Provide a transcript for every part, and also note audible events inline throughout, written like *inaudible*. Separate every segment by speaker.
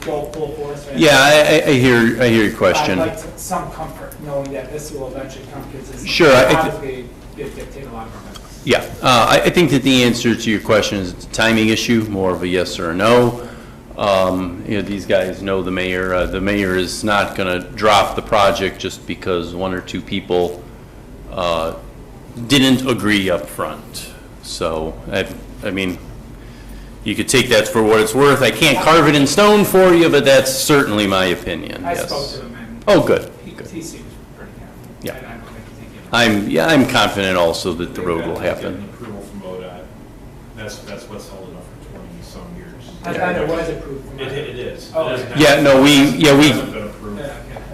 Speaker 1: go full force right now.
Speaker 2: Yeah, I, I- I hear, I hear your question.
Speaker 1: I'd like to- some comfort knowing that this will eventually come because it's.
Speaker 2: Sure, I- I thi-
Speaker 1: Obviously, it dictates a lot of our business.
Speaker 2: Yeah, uh, I, I think that the answer to your question is it's a timing issue, more of a yes or a no. Um, you know, these guys know the mayor, uh, the mayor is not gonna drop the project just because one or two people, uh, didn't agree up front. So, I, I mean, you could take that for what it's worth, I can't carve it in stone for you, but that's certainly my opinion,
Speaker 1: I
Speaker 2: yes.
Speaker 1: spoke to him and
Speaker 2: Oh, good,
Speaker 1: he,
Speaker 2: good.
Speaker 1: he seems pretty happy.
Speaker 2: Yeah.
Speaker 1: And I don't think he's thinking.
Speaker 2: I'm, yeah, I'm confident also that the road will
Speaker 3: They've
Speaker 2: happen.
Speaker 3: got to get an approval from ODOT. That's, that's what's held it up for twenty-some years.
Speaker 1: I thought it was approved. from-
Speaker 3: It, it is.
Speaker 1: Oh,
Speaker 3: It is
Speaker 1: okay.
Speaker 3: now.
Speaker 2: Yeah, no, we- yeah, we-
Speaker 3: It hasn't been approved.
Speaker 1: Yeah,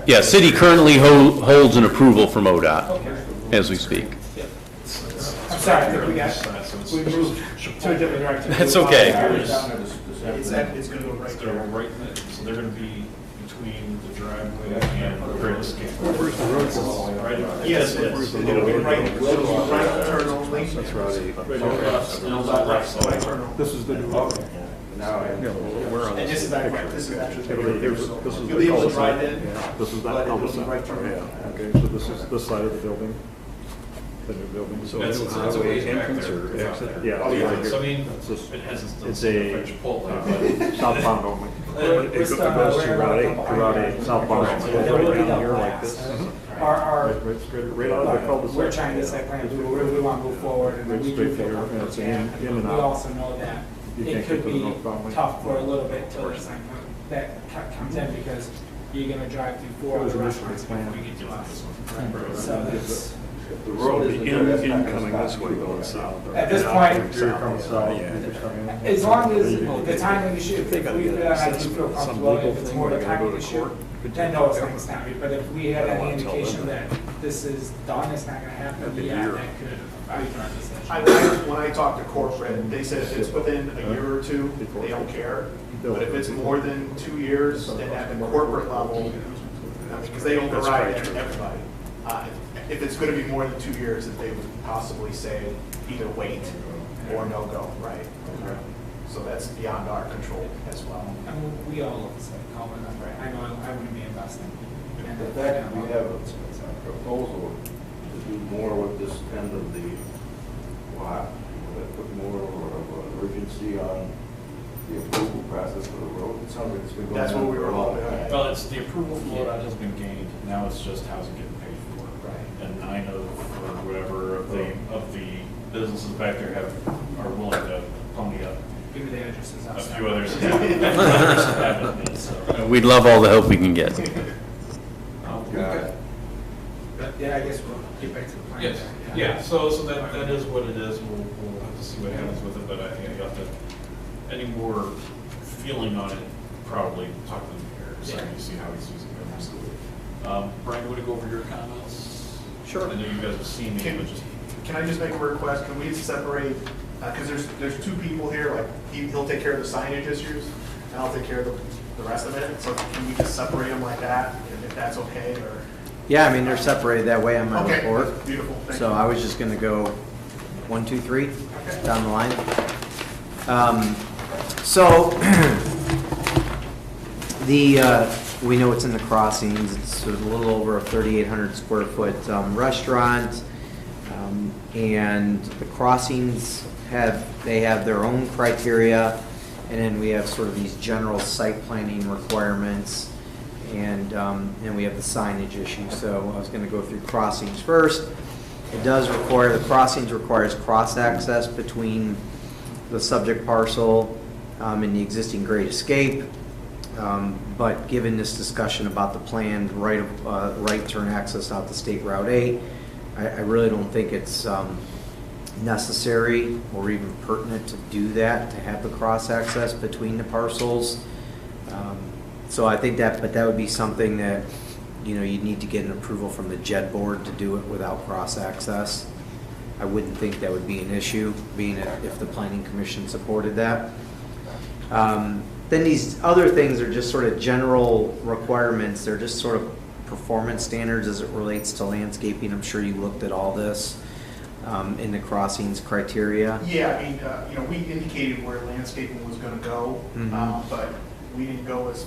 Speaker 1: okay.
Speaker 2: Yeah, city currently ho- holds an approval from ODOT
Speaker 1: Okay.
Speaker 2: as we speak.
Speaker 1: I'm sorry, I think we
Speaker 3: It's
Speaker 1: got,
Speaker 3: not, so it's-
Speaker 1: we moved to a different direction.
Speaker 2: That's okay.
Speaker 4: It's, it's gonna go
Speaker 3: It's
Speaker 4: right
Speaker 3: gonna
Speaker 4: there.
Speaker 3: go right, in it. so they're gonna be between the driveway and the rail escape. Right, yes, yes.
Speaker 4: It'll be right, right turn only. That's right.
Speaker 3: Right across, and on the left side.
Speaker 5: This is the new.
Speaker 4: And this is that, right, this is actually.
Speaker 5: This is
Speaker 4: You'll be able to
Speaker 5: the
Speaker 4: drive
Speaker 5: cul-de-sac.
Speaker 4: in.
Speaker 5: This is
Speaker 4: but
Speaker 5: that
Speaker 4: it'll be
Speaker 5: cul-de-sac.
Speaker 4: right turn.
Speaker 5: Yeah, okay, so this is this side of the building, the new building. So
Speaker 3: That's, that's a ways back there. It's out there.
Speaker 5: Yeah.
Speaker 3: Oh,
Speaker 5: it's
Speaker 3: yeah,
Speaker 5: right
Speaker 3: so I
Speaker 5: here.
Speaker 3: mean,
Speaker 5: It's just-
Speaker 3: it has its.
Speaker 5: It's a-
Speaker 3: Chipotle, but.
Speaker 5: Uh, Southbound only.
Speaker 1: *laughs* Uh,
Speaker 5: It go- it goes to Route 8, to Route 8, southbound. only.
Speaker 1: There will be
Speaker 5: Right
Speaker 1: no
Speaker 5: down here like
Speaker 1: blacks.
Speaker 5: this.
Speaker 1: Our, our
Speaker 5: Right, right straight, right out of the cul-de-sac.
Speaker 1: We're trying to set plans, we really want to move forward, and
Speaker 5: Right
Speaker 1: we do
Speaker 5: straight
Speaker 1: feel
Speaker 5: there,
Speaker 1: comfortable
Speaker 5: it's
Speaker 1: with
Speaker 5: in-
Speaker 1: that.
Speaker 5: in
Speaker 1: We
Speaker 5: and out.
Speaker 1: also know that
Speaker 5: You
Speaker 1: it
Speaker 5: can't
Speaker 1: could
Speaker 5: get to the
Speaker 1: be
Speaker 5: north boundary.
Speaker 1: tough for a little bit till there's something that co- comes in, because you're gonna drive through four
Speaker 5: It was
Speaker 1: other
Speaker 5: originally
Speaker 1: restaurants before
Speaker 5: planned.
Speaker 1: we get to us. So that's,
Speaker 6: The road is incoming this way going south.
Speaker 1: at this point,
Speaker 5: Here comes, uh, people coming in.
Speaker 1: as long as the timing issue, if we, feel- I do feel comfortable, if it's more the timing issue, then no, it's not, it's not. But if we had any indication that this is done, it's not gonna happen, yeah, that could, I would not decision.
Speaker 4: I, I- when I talked to corporate, they said if it's within a year or two, they don't care. But if it's more than two years, then at the corporate level, because they override everybody. Uh, If it's gonna be more than two years, then they would possibly say either wait or no go, right? So that's beyond our control as well.
Speaker 1: I mean, we all look the same, Colin, I'm right, I know, I wouldn't be investing. um,
Speaker 6: In fact, we have a proposal to do more with this end of the lot, that put more of an urgency on the approval process for the road. It sounds like it's been going on.
Speaker 4: That's what we
Speaker 6: for
Speaker 4: were
Speaker 6: a long
Speaker 4: hoping.
Speaker 6: time.
Speaker 3: Well, it's, the approval from ODOT has been gained, now it's just how's it getting paid for.
Speaker 4: Right.
Speaker 3: And nine of, or whatever, of the, of the businesses back there have, are willing to pony up.
Speaker 1: Give me the addresses
Speaker 3: A
Speaker 1: outside.
Speaker 3: few
Speaker 4: *laughs*
Speaker 3: others have, others haven't, and
Speaker 2: *laughs*
Speaker 3: so.
Speaker 2: We'd love all the help we can get.
Speaker 6: Yeah.
Speaker 1: *laughs* But, yeah, I guess we'll get back to the plan.
Speaker 3: Yes, yeah, so, so that, that is what it is, we'll, we'll have to see what happens with it, but I think I got the, any more feeling on it, probably talk to the mayor, so you see how he's using it. Absolutely. Um, Brian, would you go over your comments?
Speaker 4: Sure.
Speaker 3: I know you guys have seen me, but just.
Speaker 4: Can I just make a request? Can we separate, because there's, there's two people here, like, he- he'll take care of the signage issues, and I'll take care of the, the rest of it, so can we just separate them like that, if- if that's okay, or?
Speaker 7: Yeah, I mean, they're separated that way on my
Speaker 4: Okay,
Speaker 7: report.
Speaker 4: beautiful, thank
Speaker 7: So
Speaker 4: you.
Speaker 7: I was just gonna go one, two, three
Speaker 4: Okay.
Speaker 7: down the line. Um, So the, uh, we know it's in the crossings, it's sort of a little over a 3,800 square foot um, restaurant. Um, And the crossings have, they have their own criteria. And then we have sort of these general site planning requirements. And, um, and we have the signage issue. So I was going to go through crossings first. It does require, the crossings requires cross access between the subject parcel um, and the existing grade escape. Um, But given this discussion about the planned right, of- uh, right turn access out to State Route 8, I, I really don't think it's um, necessary or even pertinent to do that, to have the cross access between the parcels. Um, So I think that, but that would be something that, you know, you'd need to get an approval from the JED board to do it without cross access. I wouldn't think that would be an issue, being if if the planning commission supported that. Um, Then these other things are just sort of general requirements, they're just sort of performance standards as it relates to landscaping. I'm sure you looked at all this um, in the crossings criteria.
Speaker 4: Yeah, I mean, uh, you know, we indicated where landscaping was gonna go,
Speaker 7: Mhm.
Speaker 4: um, but we didn't go as far